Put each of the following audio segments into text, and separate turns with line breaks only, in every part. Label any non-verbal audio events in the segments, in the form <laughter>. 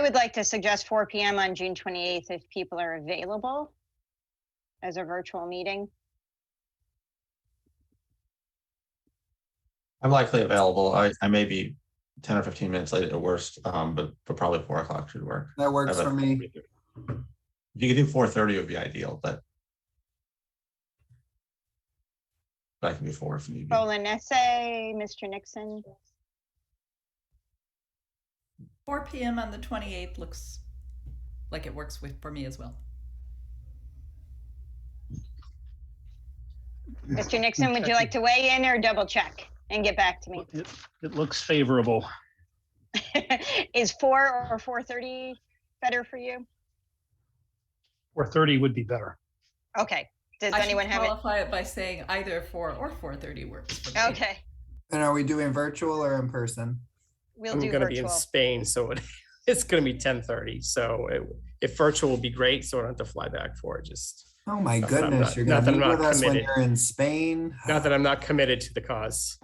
would like to suggest four PM on June twenty-eighth if people are available as a virtual meeting.
I'm likely available. I, I may be ten or fifteen minutes late at worst, um, but, but probably four o'clock should work.
That
I
works
have a-
for me.
If you could do four thirty would be ideal, but but I can do four if need
Hmm.
be.
Roland Essay, Mr. Nixon.
4 p.m. on the 28th looks like it works with for me as well.
Hmm.
Mr. Nixon, would you
Gotcha.
like to weigh in or double check and get back to me? <laughs>
It, it looks favorable.
Is four or four thirty better for you?
Four thirty would be better.
Okay, does
I should
anyone have it?
qualify it? by saying either 4 or 4:30 works for me.
Okay,
And are we doing virtual or in person?
we'll
I'm
do
gonna be in
virtual.
Spain, so it, <laughs> it's gonna be ten thirty, so it, if virtual will be great, so I don't have to fly back for it, just,
Oh my
Not that I'm
goodness,
not-
you're
not
gonna
that
meet
I'm
with
not
us when
committed.
you're in Spain.
not that I'm not committed to the cause.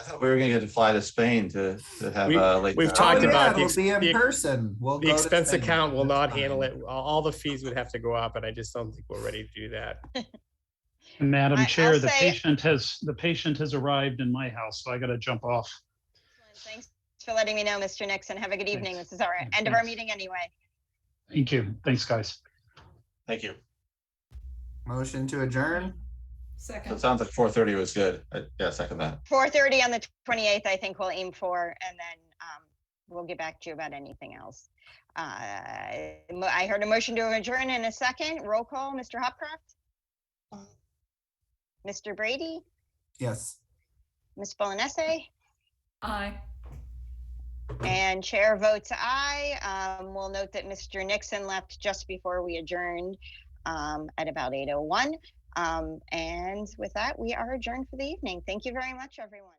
I thought we were gonna get to fly to Spain to, to have
We-
a late.
we've
night.
Oh,
talked
yeah,
about the
It'll
ex-
be
the
in
ex-
person. We'll
The
go to
expense
Spain.
account will
That's
not handle
fine.
it, all, all the fees would have to go up, and I just don't think we're ready to do that.
I-
Madam
I'll
Chair, the
say-
patient has, the patient has arrived in my house, so I gotta jump off.
Thanks for letting me know, Mr. Nixon. Have a good evening.
Thanks.
This is our
Yeah,
end of our
thanks.
meeting anyway.
Thank you. Thanks, guys.
Thank you.
Motion to adjourn.
Second.
So It sounds like four thirty was good. I- Yeah, second that.
Four thirty on the twenty-eighth, I think we'll aim for, and then um, we'll get back to you about anything else. Uh, mo- I heard a motion to adjourn in a second. Roll call, Mr. Hopcroft? Mr. Brady,
Yes.
Ms. Bolanese,
Aye.
and Chair votes aye. Um, We'll note that Mr. Nixon left just before we adjourned um, at about Um, eight oh one. And with that, we are adjourned for the evening. Thank you very much, everyone.